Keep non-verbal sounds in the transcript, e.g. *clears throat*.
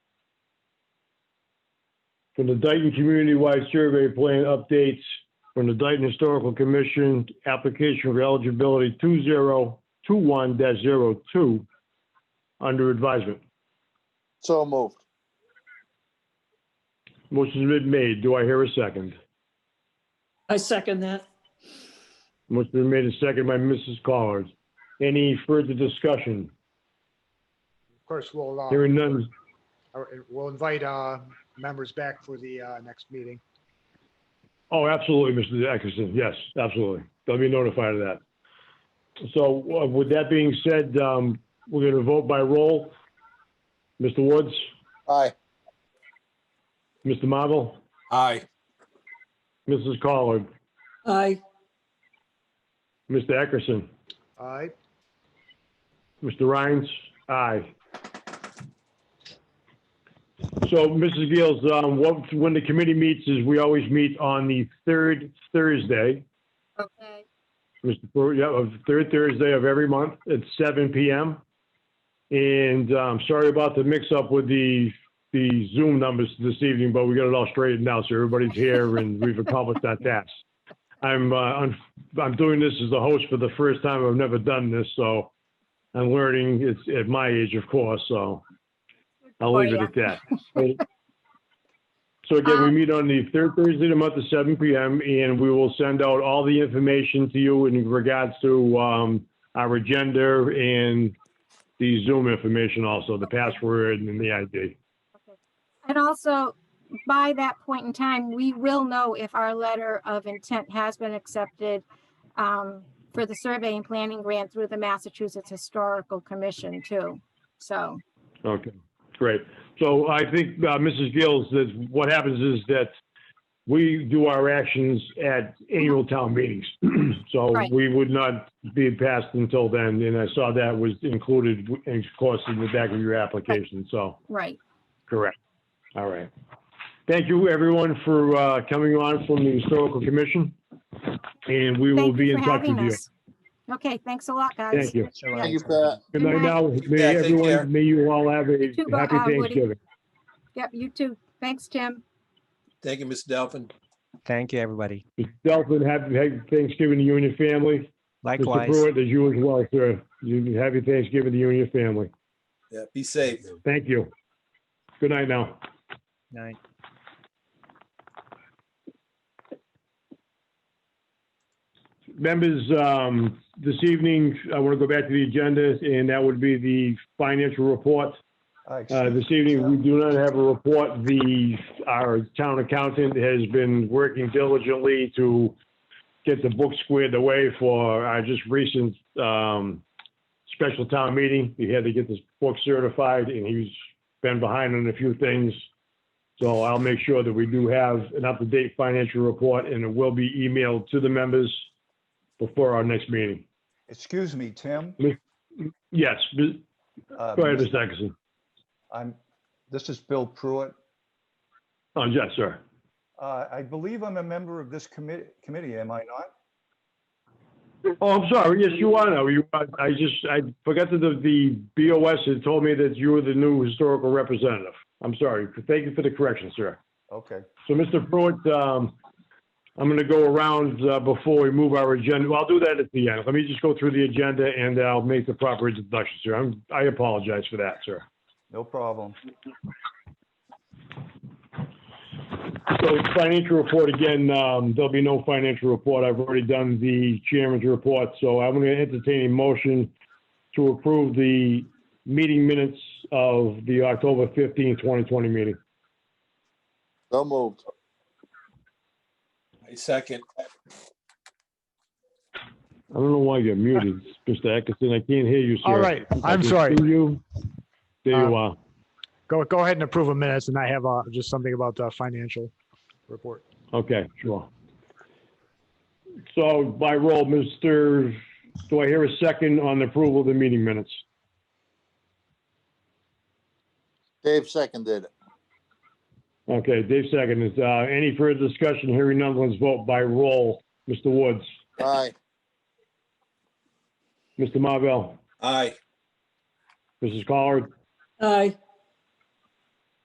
from the Dayton Community-Wide Survey Plan updates from the Dayton Historical Commission, application for eligibility 2021-02, under advisement. So moved. Motion's been made. Do I hear a second? I second that. Motion's been made and seconded by Mrs. Collins. Any further discussion? Of course, we'll, uh, Hearing none. uh, we'll invite uh, members back for the uh, next meeting. Oh, absolutely, Mr. Atkinson. Yes, absolutely. They'll be notified of that. So uh, with that being said, um, we're going to vote by roll. Mr. Woods, Aye. Mr. Marvel, Aye. Mrs. Collard, Aye, Mr. Atkinson, All right, Mr. Rhines, aye. So, Mrs. Gales, um, what, when the committee meets is we always meet on the third Thursday. Okay, Mr. Brewer, yeah, of third Thursday of every month at seven PM. And um sorry about the mix up with the, the Zoom numbers this evening, but we got it all straightened out. So everybody's here and we've accomplished that task. I'm, uh, I'm, I'm doing this as the host for the first time. I've never done this, so I'm learning. It's at my age, of course, so I'll leave it at that. So again, we Um, meet on the third Thursday of the month at seven PM, and we will send out all the information to you in regards to um, our agenda and the Zoom information also, the password and the ID. and also, by that point in time, we will know if our letter of intent has been accepted um, for the survey and planning grant through the Massachusetts Historical Commission too. So, Okay, great. So I think, uh, Mrs. Gills, that what happens is that we do our actions at annual town meetings. *clears throat* So Right. we would not be passed until then, and I saw that was included, of course, in the back of your application, so. right, Correct. All right. Thank you, everyone, for uh, coming on from the Historical Commission. And we will thank be you in for touch with having you. us. Okay, thanks a lot, guys. Thank you. Thank you, Pat. Good Good night night. now. Take May care. everyone, may you all have a too, happy uh, Woody. Thanksgiving. Yep, you too. Thanks, Tim. Thank you, Ms. Delphine. Thank you, everybody. Delphin, happy happy Thanksgiving to you and your family. Mr. Likewise. Pruitt, as you as well, sir. You- Happy Thanksgiving to you and your family. Yeah, be safe. Thank you. Good night now. Night. Members, um, this evening, I want to go back to the agenda, and that would be the financial report. Uh, This evening, we do not have a report. The, our town accountant has been working diligently to get the book squared away for our just recent um, special town meeting. He had to get this book certified, and he's been behind on a few things. So I'll make sure that we do have an up-to-date financial report, and it will be emailed to the members before our next meeting. Excuse me, Tim. Yes, Ms- Uh, go ahead, Mr. Atkinson. I'm, this is Bill Pruitt. Oh, yes, sir. Uh, I believe I'm a member of this committee, committee, am I not? Oh, I'm sorry. Yes, you are now. You, are. I just, I forgot that the, the BOS had told me that you were the new historical representative. I'm sorry. Thank you for the correction, sir. Okay, So, Mr. Pruitt, um, I'm going to go around, uh, before we move our agenda. Well, I'll do that at the end. Let me just go through the agenda and I'll make the proper introduction, sir. I'm, I apologize for that, sir. no problem. So financial report, again, um, there'll be no financial report. I've already done the chairman's report, so I'm going to entertain a motion to approve the meeting minutes of the October fifteenth, twenty twenty meeting. So moved. I second. I don't know why you're muted, Mr. Atkinson. I can't hear you, sir. All right, If I I'm can sorry. Uh, see you. There you are. go, go ahead and approve a minutes, and I have uh, just something about the financial report. Okay, sure. So by roll, Mr., do I hear a second on the approval of the meeting minutes? Dave seconded it. Okay, Dave seconds. Uh, any further discussion? Hearing none, let's vote by roll. Mr. Woods, Aye. Mr. Marvell, Aye. Mrs. Collard, aye,